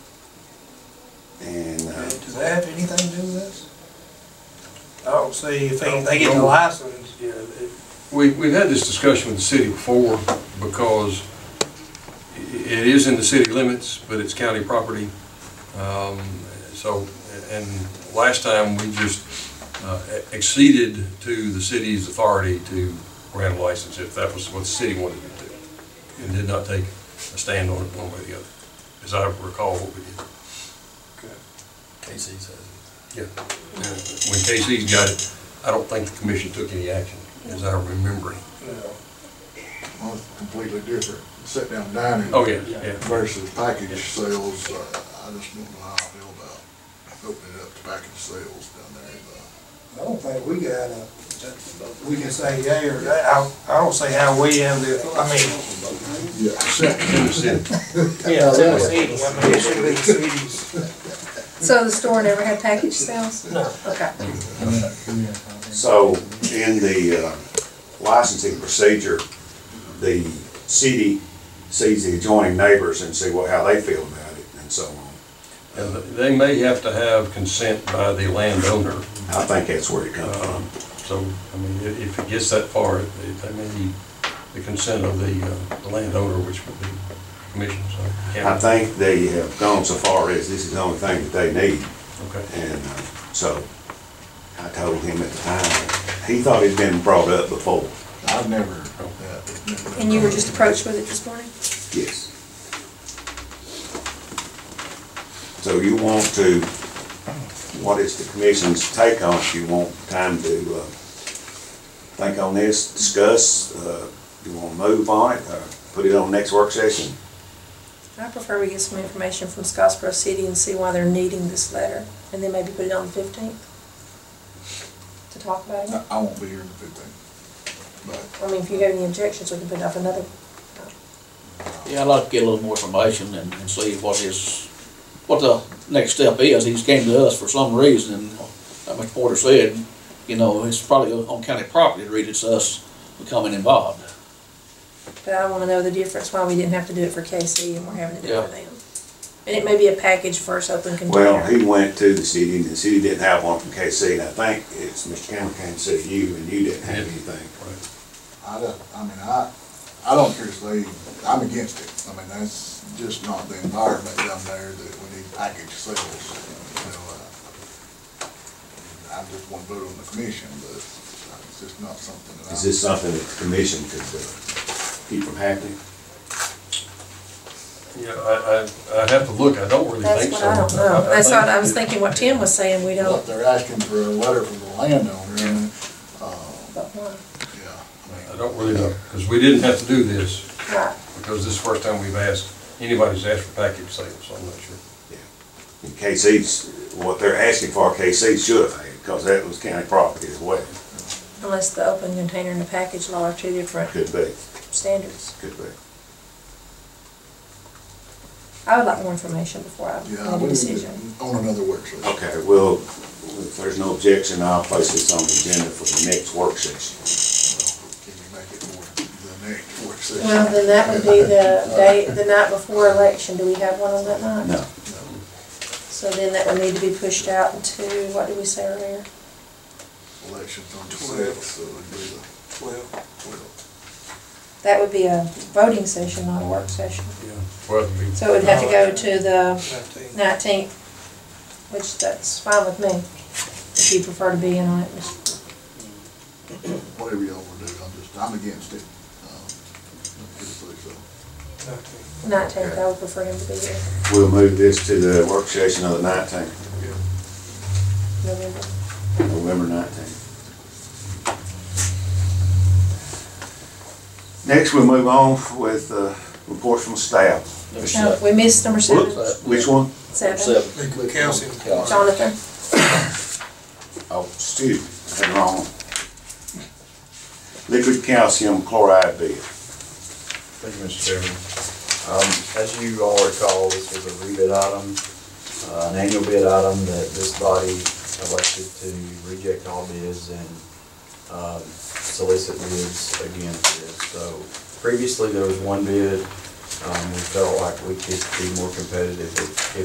And, uh, Does that have anything to do with this? I don't see if they, they get No. the license, yeah, it- We, we've had this discussion with the city before, because i- it is in the city limits, but it's county property. Um, So, and last time, we just uh, acceded to the city's authority to grant a license, if that was what the city wanted to do, and did not take a stand on it one way or the other, as I recall what we did. KC says. Yeah. When KC's got it, I don't think the commission took any action, as I remember. you know. Well, it's completely different, sit-down dining. Oh, yeah, yeah. Versus package sales, uh, I just don't know how I feel about opening up to package sales down there. but I don't think we got a, we can say yea or nay, I, I don't see how we have the, I mean. Yeah, set- Yeah. It's in the city, I mean, it should be cities. So the store never had package sales? No. Okay. so in the uh, licensing procedure, the city sees the adjoining neighbors and see what, how they feel about it and so on. And they may have to have consent by the landowner, I think that's where it comes from. um, so, I mean, i- if it gets that far, it- they they may need the consent of the uh, the landowner, which would be the commission, so. I yeah, think they have gone so far as this is the only thing that they need. Okay. And uh, so I told him at the time, he thought it'd been brought up before. I've never, Oh. yeah, it's never. And you were just approached with it this morning? Yes. So you want to, what is the commission's take on it? You want time to uh, think on this, discuss, uh, you want to move on it, or put it on next work session? I prefer we get some information from Scottsboro City and see why they're needing this letter, and then maybe put it on the fifteenth to talk about it. I- I won't be here in the fifteenth, but I mean, if you have any objections, we can put it off another. Yeah, I'd like to get a little more information and, and see what his, what the next step is. He's came to us for some reason, and uh, like Mr. Porter said, you know, it's probably on county property, the reason it's us becoming involved. But I wanna know the difference, why we didn't have to do it for KC and we're having to do it Yeah. for them. And it may be a package first open Well, container. he went to the city, and the city didn't have one from KC, and I think it's Mr. Cameron came to see you, and you didn't have anything. I don't, I mean, I, I don't care if they, I'm against it. I mean, that's just not the environment down there that we need package sales, you know, uh, I just want to vote on the commission, but it's just not something that I. Is this something that the commission could uh, keep from happening? Yeah, I, I, I'd have to look, I don't really That's think so. what I don't know. That's think- what I was thinking, what Tim was saying, we Well, don't, if they're asking for a letter from the landowner, and, uh, but why? yeah, I I mean, don't really know, because we didn't have to do this, Right. because this is the first time we've asked, anybody's asked for package sales, so I'm not sure. And KC's, what they're asking for, KC should have had, because that was county property as well. Unless the open container and the package law are two different Could be, standards. could be. I would like more information before I make yeah, a we need decision. to, on another work session. Okay, well, if there's no objection, I'll place this on the agenda for the next work session. Well, Can you make it more the next work session? Well, then that would be the day, the night before election, do we have one on that night? No, So then that would need to be pushed out into, what did we say earlier? Election's on the Twelve. sixth, so it'd be the Well, twelfth. That would be a voting session, not a work session. Yeah. Well, we- So it would have to go to the nineteen. nineteenth, which that's fine with me, if you prefer to be in on it, Mr. Whatever y'all wanna do, I'm just, I'm against it. Um, just like so. nineteenth, I would prefer him to be here, we'll move this to the work session of the nineteenth, November. November nineteenth. Next, we'll move on with uh, reports from staff. No, we missed number seven, Whoops, Which one? seven, Calcium. Jonathan. Oh, Stu, I had it wrong. Liquid calcium chloride bid. Thank you, Mr. Chairman. Um, As you all recall, this was a rebid item, uh, an annual bid item that this body elected to reject all bids and um, solicit bids again for this. So previously, there was one bid. Um, We felt like we could be more competitive if if